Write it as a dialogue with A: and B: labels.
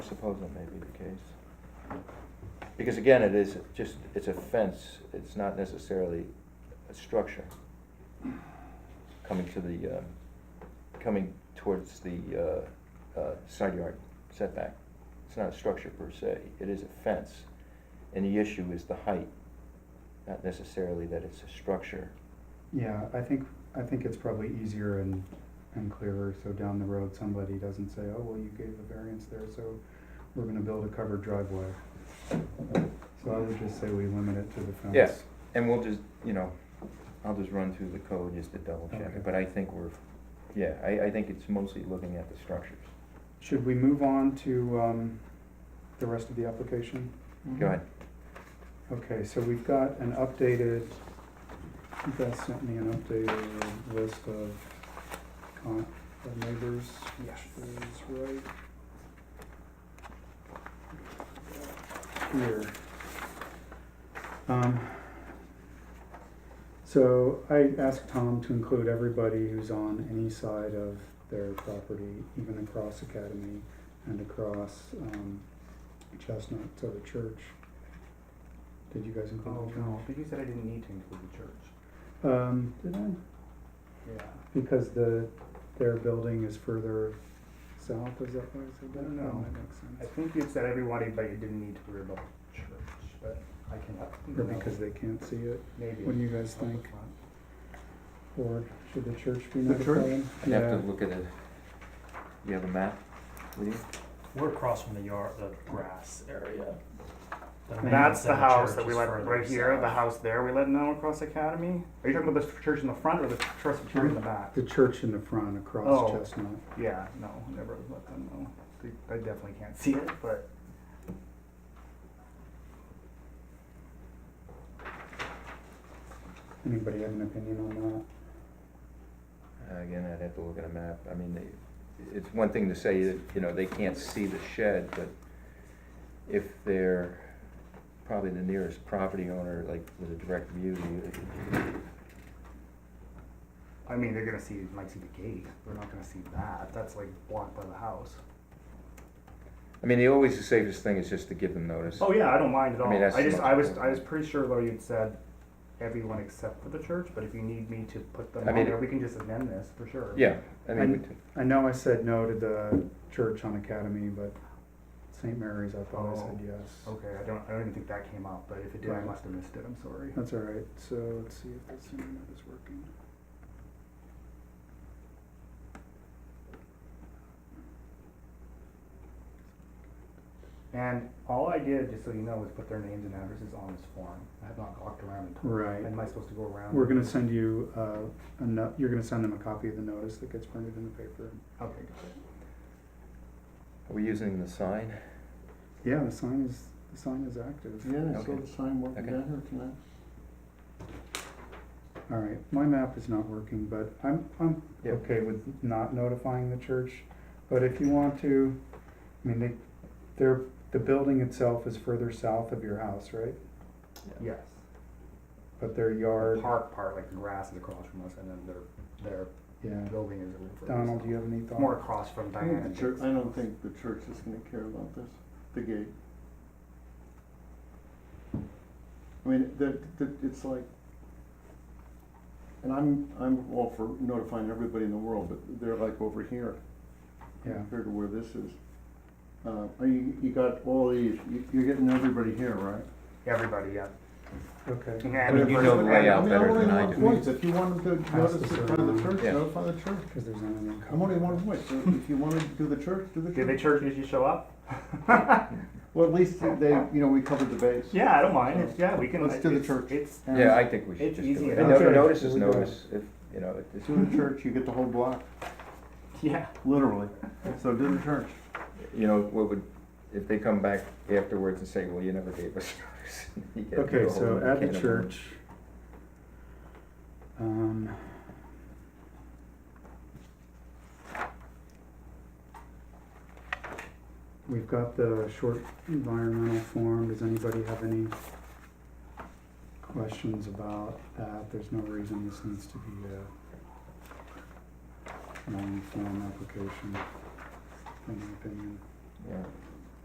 A: suppose that may be the case. Because again, it is just, it's a fence, it's not necessarily a structure coming to the, um, coming towards the uh, uh, side yard setback. It's not a structure per se, it is a fence, and the issue is the height, not necessarily that it's a structure.
B: Yeah, I think, I think it's probably easier and, and clearer, so down the road, somebody doesn't say, oh, well, you gave a variance there, so we're gonna build a covered driveway. So I would just say we limit it to the fence.
A: Yeah. And we'll just, you know, I'll just run through the code just to double check
B: Okay.
A: it, but I think we're, yeah, I, I think it's mostly looking at the structures.
B: Should we move on to, um, the rest of the application?
A: Go ahead.
B: Okay, so we've got an updated, you guys sent me an updated list of con, of neighbors, which is right. Here. Um, so I asked Tom to include everybody who's on any side of their property, even across Academy and across, um, Chestnut to the church. Did you guys include the
C: Oh,
B: church?
C: no, but you said I didn't need to include the church.
B: Um, did I?
C: Yeah.
B: Because the, their building is further south, is that why I said that?
C: No.
B: No, that makes
C: I
B: sense.
C: think you said everybody, but you didn't need to worry about the church, but I can,
B: Or
C: no,
B: because they can't see it,
C: maybe.
B: what do you guys think? or should the church be notified?
A: I'd
B: Yeah.
A: have to look at it. You have a map with you?
D: We're across from the yard, the grass area. The
B: And
D: main
C: That's the
D: center
C: house
D: church
C: that we
D: is
C: let,
D: further
C: right here, the
D: south.
C: house there, we let now across Academy? Are you talking about the church in the front or the church, church in the back?
B: The church in the front across
C: Oh.
B: Chestnut.
C: Yeah, no, never let them know. They- They definitely can't see it, but
B: Anybody have an opinion on
A: Uh, Again, I'd have to look at a map. I mean, they, it's one thing to say that, you know, they can't see the shed, but if they're probably the nearest property owner, like with a direct view, you,
C: I mean, they're gonna see, might see the gate, they're not gonna see that, that's like blocked by the house.
A: I mean, the always the safest thing is just to give them notice.
C: Oh yeah, I don't mind at
A: I
C: all.
A: mean,
C: I,
A: that's
C: just
A: much
C: I was
A: better.
C: I was pretty sure though you'd said everyone except for the church, but if you need me to put them
A: I
C: on
A: mean-
C: there, we can just amend this for sure.
A: Yeah, I mean, we
B: And-
A: t-
B: that? I know I said no to the church on Academy, but St. Mary's, I thought I
C: Oh.
B: said yes.
C: Okay, I don't I don't even think that came up, but if it did, I
B: Right.
C: must have missed it. I'm sorry.
B: That's all right, so let's see if this internet is working.
C: And all I did, just so you know, was put their names and addresses on this form. I have not walked around and told.
B: Right.
C: Am I supposed to go around?
B: We're gonna send you, uh, a no, you're gonna send them a copy of the notice that gets printed in the paper.
C: Okay, got
A: are we using the sign?
B: Yeah, the sign is, the sign is active.
E: Yeah, I
A: Okay.
E: saw the sign working
A: Okay.
E: down here tonight.
B: All right, my map is not working, but I'm, I'm
A: Yeah.
B: okay with not notifying the church. But if you want to, I mean, they, they're, the building itself is further south of your house, right?
C: it. Yes.
B: But their
C: The
B: yard,
C: park part, like the grass is across from us, and then their
B: yeah.
C: their building is a little further
B: Donald,
C: south.
B: do you have any thoughts?
C: More across from
E: I think
C: Diana.
E: the church, I don't think the church is gonna care about this, the gate. I mean, that, that, it's like, and I'm, I'm all for notifying everybody in the world, but they're like over here,
B: Yeah,
E: compared to where this is. Uh, are you, you got all these, you, you're getting everybody here, right?
C: Everybody, yeah.
B: okay.
C: Yeah, I
A: But
C: mean,
A: if you
C: we're-
A: know the
C: we're-
A: layout
E: I mean, I'm
A: better
E: only
A: than I
E: one
A: do.
E: voice. If you want them to
B: Pass
E: notice
B: the
E: it by the
B: survey.
E: church,
A: Yeah.
E: notify the church.
B: Cause there's not any.
E: I'm only one voice, so if you wanna do the church, do the
C: Did the
E: church.
C: church usually show up?
E: Well, at least they, you know, we covered the base.
C: Yeah, I don't mind. It's, yeah, we can.
E: Let's do the
C: it's-
E: church.
C: It's um,
E: And
A: Yeah, I think we should
C: It's
A: just do
C: easy
A: it.
C: enough.
A: No-
B: Okay,
A: Notice is
B: here we go.
A: notice, if, you know, if it's.
E: Do the church, you get the whole block,
C: yeah.
E: literally. So do the church.
A: you know, what would, if they come back afterwards and say, well, you never gave us notice. you get
B: Okay,
A: a whole
B: so
A: other
B: at
A: can
B: the
A: of
B: church. Um. We've got the short environmental form, does anybody have any questions about that? There's no reason this needs to be a long form application, in my opinion.
A: worms. Yeah.